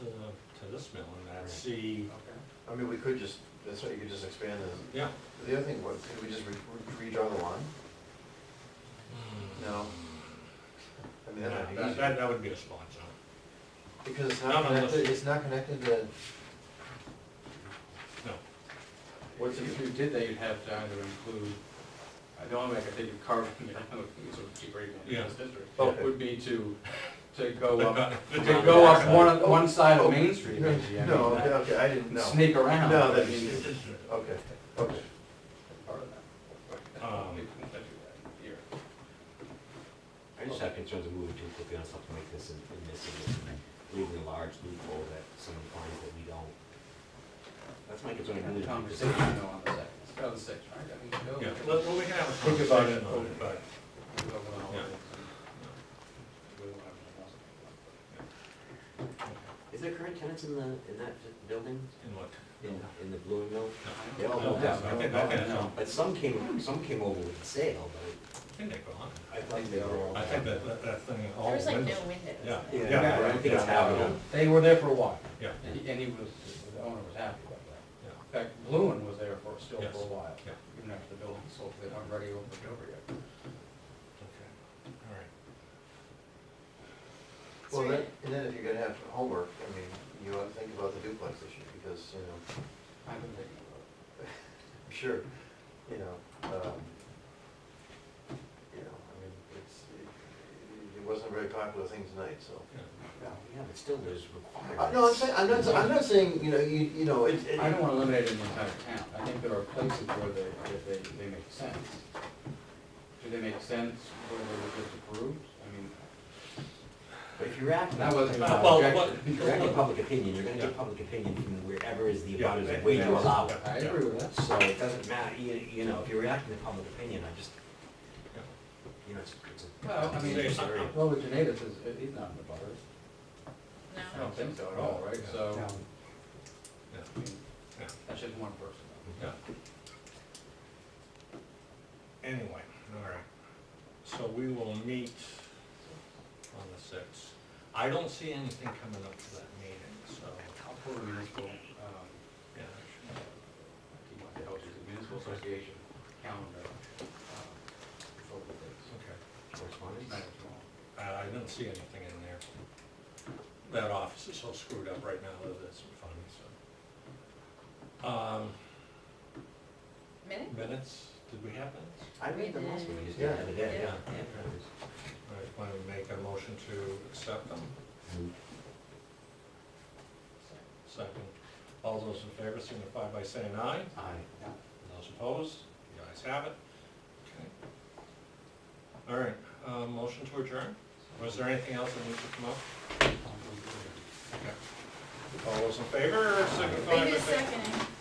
to this mill and that's the, I mean, we could just, that's why you could just expand it. yeah. The other thing, what, could we just re- re- redraw the line? Mm. No? I mean, that might be That, easier. that- that would be a spot zone, Because it's No, not no, let's- connected, it's not connected to, no. what's If it, you did that, you'd have to either include, uh, the only way I could think of carving it out, it's a cheap rate in Yeah. this district, Okay. would be to, to go up, The to top go up side. one, one side of Main Street, no, maybe, I mean, no, okay, that- okay, I didn't, and know. sneak around. No, I that's- mean, it's okay, okay. part of that. Um, We couldn't do that here. I just have concerns of moving too quickly on something like this and and missing this, and leaving a large loophole that someone finds that we don't. That's my concern. We really. had a Conversation though on the second, it's got the six, right, I mean, go. Yeah, well, well, we can have a Think about it. conversation on it, but, We'll go one over. Yeah. We don't have anything else to Is there current tenants in the, in that building, in what? in, in the Blue Mill? do. They all moved I out. think, I think, that's- But some came, some came over with the sale, but I think they're gone. I think they were all. I think that, that, that thing, all There's like no wins. windows. Yeah. Yeah, Yeah, I don't think it's yeah. happening. They were there for a while. Yeah. And he- and he was, the owner was happy about that. Yeah. In fact, Bluen was there for, still for Yes. a while, Yeah. even after the building sold, they do not ready over it over yet. Okay, all right. Well, then, and then if you're gonna have homework, I mean, you ought to think about the duplex issue, because, you know, I've been thinking about I'm sure, you know, um, you know, I mean, it's, it- it wasn't a very popular thing tonight, so. Yeah. Yeah, but still there's Uh, requirements. No, I'm saying, I'm not, I'm not saying, you know, you, you know, it, it. it. I don't want to eliminate an entire town, I think there are places where they, that they, they make sense. Do they make sense where they were just approved? I mean, But if you're acting. that wasn't even Uh, an well, objection. If you're acting public opinion, you're gonna Yeah. get public opinion from wherever is the Yeah, abutters that- way you allow it. yeah. I agree with that. So it doesn't matter, you, you know, if you're reacting to public opinion, I just, you know, it's, it's a. Well, I mean, it's a area. Well, with Janatus, is, he's not in the butter. I No. don't think so at all, right, Yeah. so. No. Yeah. I mean, Yeah. That's just one person. Yeah. Anyway, all right. So we will meet on the sixth. I don't see anything coming up for that meeting, so, I'll pull the municipal, um, yeah. uh, I keep my head out, the municipal association calendar, um, for the dates. Okay. Correspondence? Tonight or tomorrow. I, I don't see anything in there. That office is so screwed up right now that it's funny, so. Um, Minute? minutes, did we have minutes? I read them also, we just did Yeah. the other day, yeah. Yeah. Yeah. All right, want to make a motion to accept them? Second. All those in favor signify by saying aye. Aye. Yeah. Those opposed, the ayes have it. Okay. All right, uh, motion to adjourn. Was there anything else that needs to come up? I'll do it. Okay. All those in favor, signify by Wait a saying. second.